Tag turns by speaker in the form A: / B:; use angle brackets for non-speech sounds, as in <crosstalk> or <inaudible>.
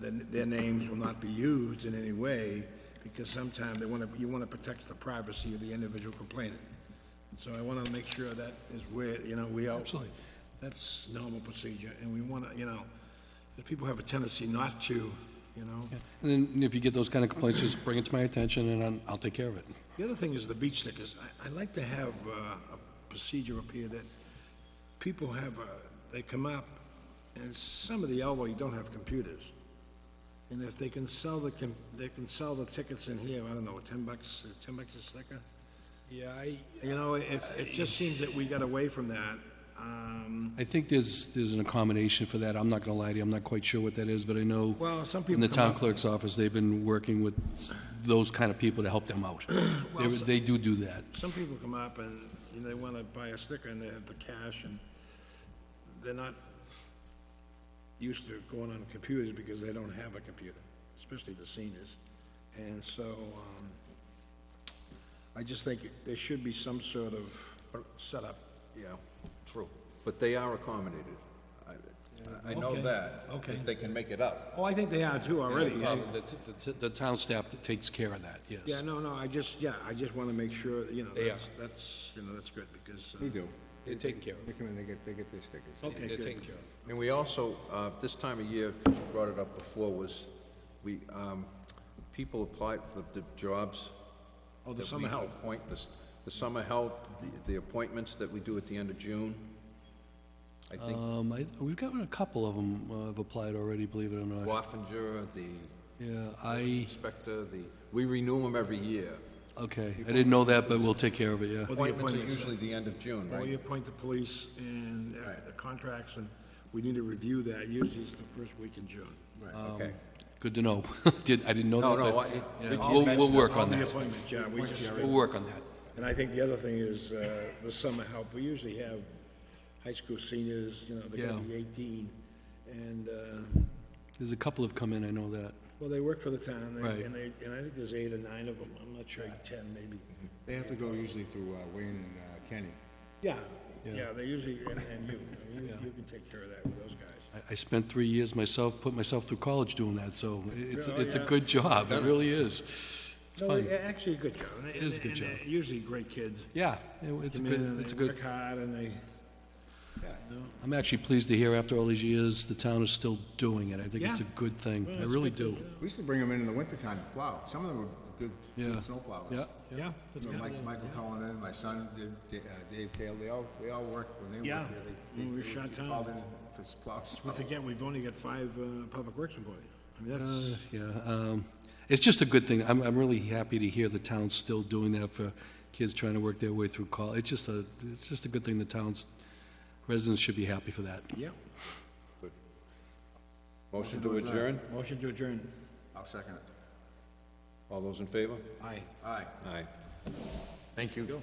A: then uh, their names will not be used in any way, because sometimes they want to, you want to protect the privacy of the individual complainant. So I want to make sure that is where, you know, we are.
B: Absolutely.
A: That's normal procedure, and we want to, you know, if people have a tendency not to, you know.
B: And then if you get those kind of complaints, just bring it to my attention and I'll- I'll take care of it.
A: The other thing is the beach stickers. I, I like to have uh, a procedure up here that people have, uh, they come up, and some of the elderly don't have computers. And if they can sell the, com- they can sell the tickets in here, I don't know, ten bucks, uh, ten bucks a sticker?
C: Yeah, I,
A: You know, it's, it just seems that we got away from that. Um,
B: I think there's, there's an accommodation for that. I'm not going to lie to you, I'm not quite sure what that is, but I know
A: Well, some
B: in
A: people
B: the
A: come
B: town
A: up,
B: clerk's office, they've been working with s- those kind of people to help
A: <clears throat>
B: them out. They they do do that.
A: some people come up and you know, they want to buy a sticker and they have the cash and they're not used to going on computers because they don't have a computer, especially the seniors. And so, um, I just think there should be some sort of setup, you know.
D: True, but they are accommodated. I- I know
A: Okay,
D: that.
A: okay.
D: They can make it up.
A: Oh, I think they are too already.
B: Uh, The the- the town staff that takes care of that,
A: Yeah,
B: yes.
A: no, no, I just, yeah, I just want to make sure, that, you know,
B: They
A: that's, that's, you know, that's good because, uh,
E: We do.
B: They're taken care of.
E: They come in, they get, they get their stickers.
A: okay,
B: They're
A: good.
B: taken care of.
D: And we also, uh, this time of year, 'cause you brought it up before, was we, um, people apply for the jobs.
A: Oh, the
D: that
A: summer
D: we
A: help.
D: appoint, the s- The summer help, the- the appointments that we do at the end of June. I think
A: Uh,
B: Um, I- We've gotten a couple of them have applied already, believe it or not.
D: Waffinger, the
B: Yeah, I,
D: inspector, the, we renew them every year.
B: okay, I didn't know that, but we'll take care of it, yeah.
A: Well, the
D: Appointments are
A: appointments. Oh,
D: usually the end of June,
A: Well,
D: right?
A: you appoint the police and uh, the contracts, and we need to review that, usually it's the first week in June.
D: Right,
A: Um,
D: okay.
B: Good to know. <laughs> Did, I didn't know
D: No,
B: that,
D: no,
B: but,
D: I- it-
B: yeah,
D: Richie
B: we'll,
D: mentioned
B: we'll
D: it.
B: work on
A: the
B: that.
A: appointment, John, we just,
B: We'll work on that.
A: and I think the other thing is, uh, the summer help, we usually have high school seniors, you know, they're gonna
B: Yeah.
A: be eighteen, and, uh,
B: There's a couple have come in, I know that.
A: well, they work for the town, and-
B: Right.
A: and they, and I think there's eight or nine of them, I'm not sure, ten maybe.
E: They have to go usually through uh, Wayne and uh, Kenny.
A: Yeah, yeah, they usually, and, and you, I mean, you, you can take care of that with those guys.
B: I, I spent three years myself, put myself through college doing that, so it's,
A: Yeah,
B: it's a
A: yeah.
B: good job, it really is. It's
A: No,
B: fun.
A: a- actually, a good job. and they-
B: It is a good
A: and
B: job.
A: they're Usually great kids.
B: Yeah, it- it's a
A: Come in
B: good,
A: and
B: it's a
A: they
B: good,
A: Work hard and they,
B: I'm actually pleased to hear after all these years, the town is still doing it. I think it's a
A: Yeah.
B: good thing,
A: Well,
B: I
A: it's
B: really
A: good to
B: do.
E: We used to bring them in in the wintertime to plow. Some of them were good,
B: Yeah.
E: good snow plowers.
B: Yeah,
A: yeah,
E: You know, Mike, Michael Cullen and my son, Dave- Da- uh, Dave Taylor, they all, they all worked when they
A: Yeah.
E: worked there. They-
A: When
E: they-
A: we were
E: they
A: shut down.
E: Called in to s- plow.
A: Don't forget, we've only got five, uh, public works employees. I mean,
B: Uh,
A: that's,
B: yeah, um, it's just a good thing. I'm, I'm really happy to hear the town's still doing that for kids trying to work their way through college. It's just a, it's just a good thing the town's residents should be happy for that.
A: yeah.
D: Motion to adjourn?
A: Motion to adjourn.
E: I'll second it.
D: All those in favor?
A: Aye.
E: Aye.
D: Aye.
B: Thank you.